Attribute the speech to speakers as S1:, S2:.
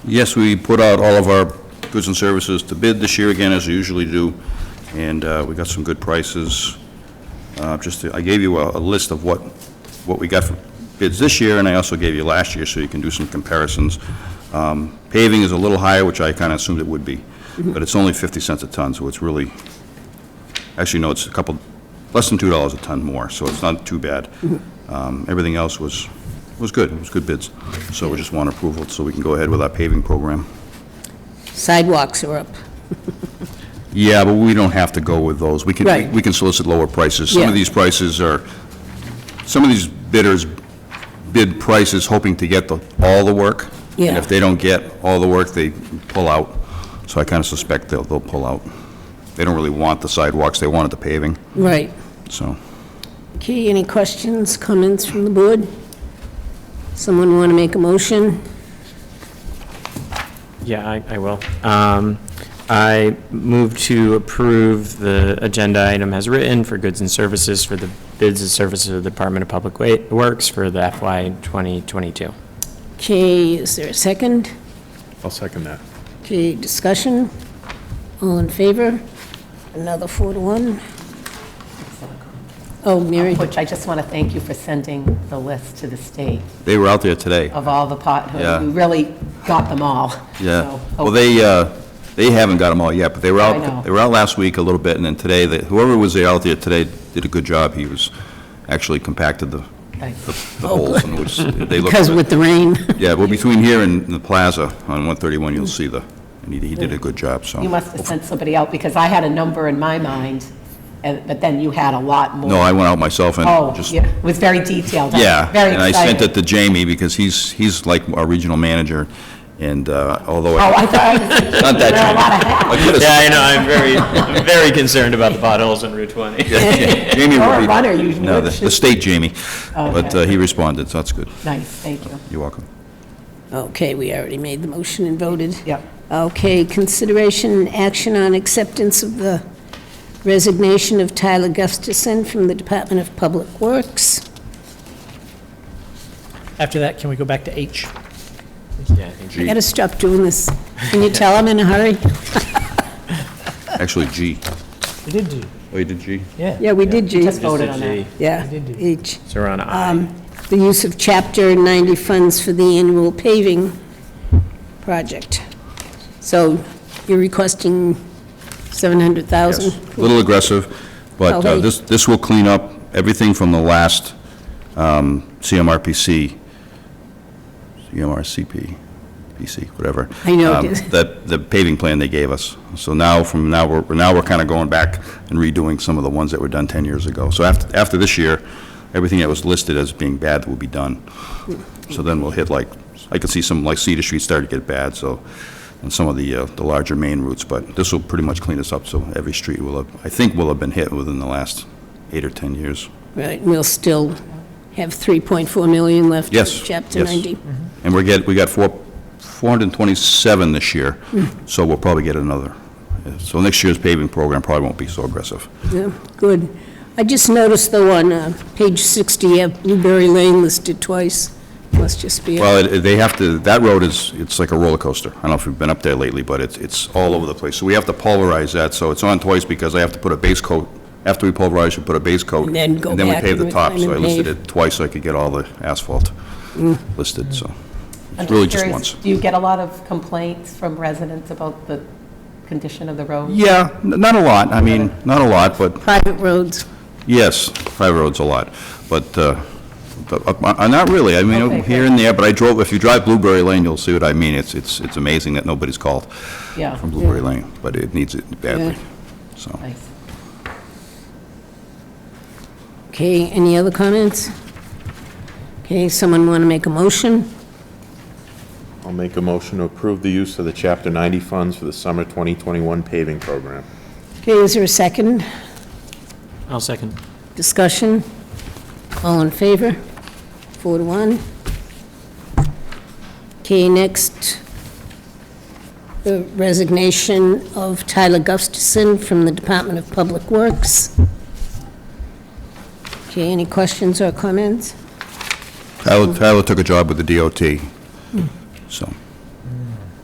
S1: Yes, we put out all of our goods and services to bid this year again, as we usually do, and uh, we got some good prices. Uh, Just, I gave you a a list of what, what we got for bids this year, and I also gave you last year, so you can do some comparisons. Um, Paving is a little higher, which I kind of assumed it would be, but it's only 50 cents a ton, so it's really, actually, no, it's a couple, less than $2 a ton more, so it's not too bad. Um, Everything else was, was good, it was good bids. So we just want approval so we can go ahead with our paving program.
S2: Sidewalks are up.
S1: Yeah, but we don't have to go with those. We
S2: Right.
S1: can, we can solicit lower prices. Some
S2: Yeah.
S1: of these prices are, some of these bidders bid prices hoping to get the, all the work. And
S2: Yeah.
S1: if they don't get all the work, they pull out. So I kind of suspect they'll, they'll pull out. They don't really want the sidewalks, they wanted the paving,
S2: Right.
S1: so.
S2: Okay, any questions, comments from the board? Someone want to make a motion?
S3: Yeah, I, I will. Um, I move to approve the agenda item as written for goods and services for the bids and services of the Department of Public Wa- Works for the FY 2022.
S2: Okay, is there a second?
S4: I'll second that.
S2: Okay, discussion? All in favor? Another four to one? Oh, Mary,
S5: Which I just want to thank you for sending the list to the state
S1: They were out there today,
S5: of all the
S1: Yeah.
S5: potholes. You really got them all.
S1: yeah.
S5: So, oh.
S1: Well, they, uh, they haven't got them all yet, but they were
S5: I know.
S1: out, they were out last week a little bit, and then today, they- whoever was there out there today did a good job. He was, actually compacted the,
S5: okay.
S1: the holes in which they look.
S2: Oh, because with the rain.
S1: Yeah, well, between here and the plaza on 131, you'll see the, and he he did a good job, so.
S5: You must have sent somebody out, because I had a number in my mind, and- but then you had a lot more.
S1: No, I went out myself
S5: Oh,
S1: and just,
S5: yeah, it was very detailed. I'm
S1: yeah.
S5: Very
S1: And I sent it
S5: excited.
S1: to Jamie because he's, he's like our regional manager, and uh, although,
S5: Oh,
S1: I-
S5: I thought,
S1: not that
S5: there are a lot
S1: Jamie.
S5: of hats.
S1: I could've-
S3: Yeah, I know, I'm very, I'm very concerned about the potholes on Route 20.
S1: Jamie
S5: You're a
S1: would be-
S5: runner, you
S1: No, the
S5: would
S1: the
S5: shoot.
S1: state Jamie, but uh, he responded, so that's good.
S5: Nice, thank you.
S1: You're welcome.
S2: Okay, we already made the motion and voted.
S5: Yep.
S2: Okay, consideration and action on acceptance of the resignation of Tyler Gustafson from the Department of Public Works.
S6: After that, can we go back to H?
S3: Yeah, I think
S2: I gotta stop doing this. Can you tell I'm in a hurry?
S1: Actually, G.
S6: We did do,
S1: Oh, you did G?
S6: yeah.
S2: Yeah, we did, G.
S5: Just voted on that. Um,
S3: G.
S2: Yeah,
S6: We did do.
S2: H.
S3: So we're on I.
S2: The use of Chapter 90 funds for the annual paving project. So you're requesting 700,000?
S1: Yes, a little aggressive, but uh,
S2: Okay.
S1: this, this will clean up everything from the last um, CMRPC, E CMRCP, PC, whatever.
S2: I know it
S1: um,
S2: is.
S1: That, the paving plan they gave us. So now, from now, we're, now we're kind of going back and redoing some of the ones that were done 10 years ago. So after, after this year, everything that was listed as being bad will be done. So then we'll hit like, I can see some, like Cedar Street starting to get bad, so, and some of the, uh, the larger main routes, but this will pretty much clean us up, so every street will have, I think will have been hit within the last eight or 10 years.
S2: Right, and we'll still have 3.4 million left in
S1: Yes,
S2: Chapter
S1: yes.
S2: 90.
S1: And we're get, we got four, 427 this year,
S2: Mm-hmm.
S1: so we'll probably get another. So next year's paving program probably won't be so aggressive.
S2: Yeah, good. I just noticed though on uh, page 60, you have Blueberry Lane listed twice. Must just be,
S1: Well, it- they have to, that road is, it's like a roller coaster. I don't know if you've been up there lately, but it's, it's all over the place. So we have to pulverize that, so it's on twice because I have to put a base coat, after we pulverize, we put a base coat.
S2: And then go
S1: we
S2: back
S1: pave the
S2: and
S1: top, so I
S2: reclaim and
S1: listed
S2: pave. Mm.
S1: it twice so I could get all the asphalt listed, so.
S5: I'm
S1: It's really just once.
S5: curious, Do you get a lot of complaints from residents about the condition of the road?
S1: Yeah, n- not a lot, I mean, not a lot, but
S2: private roads.
S1: Yes, five roads a lot, but, uh, but, uh, not really, I mean,
S5: Okay,
S1: here and there, but I drove, if you drive Blueberry Lane, you'll see what I mean, it's, it's, it's amazing that nobody's called
S5: Yeah.
S1: from Blueberry Lane, but it needs it badly, so.
S5: Nice.
S2: Okay, any other comments? Okay, someone want to make a motion?
S4: I'll make a motion to approve the use of the Chapter 90 funds for the summer 2021 paving program.
S2: Okay, is there a second?
S3: I'll second.
S2: Discussion? All in favor? Four to one. Okay, next, the resignation of Tyler Gustafson from the Department of Public Works. Okay, any questions or comments?
S5: Hmm.
S1: Tyler, Tyler took a job with the DOT, so,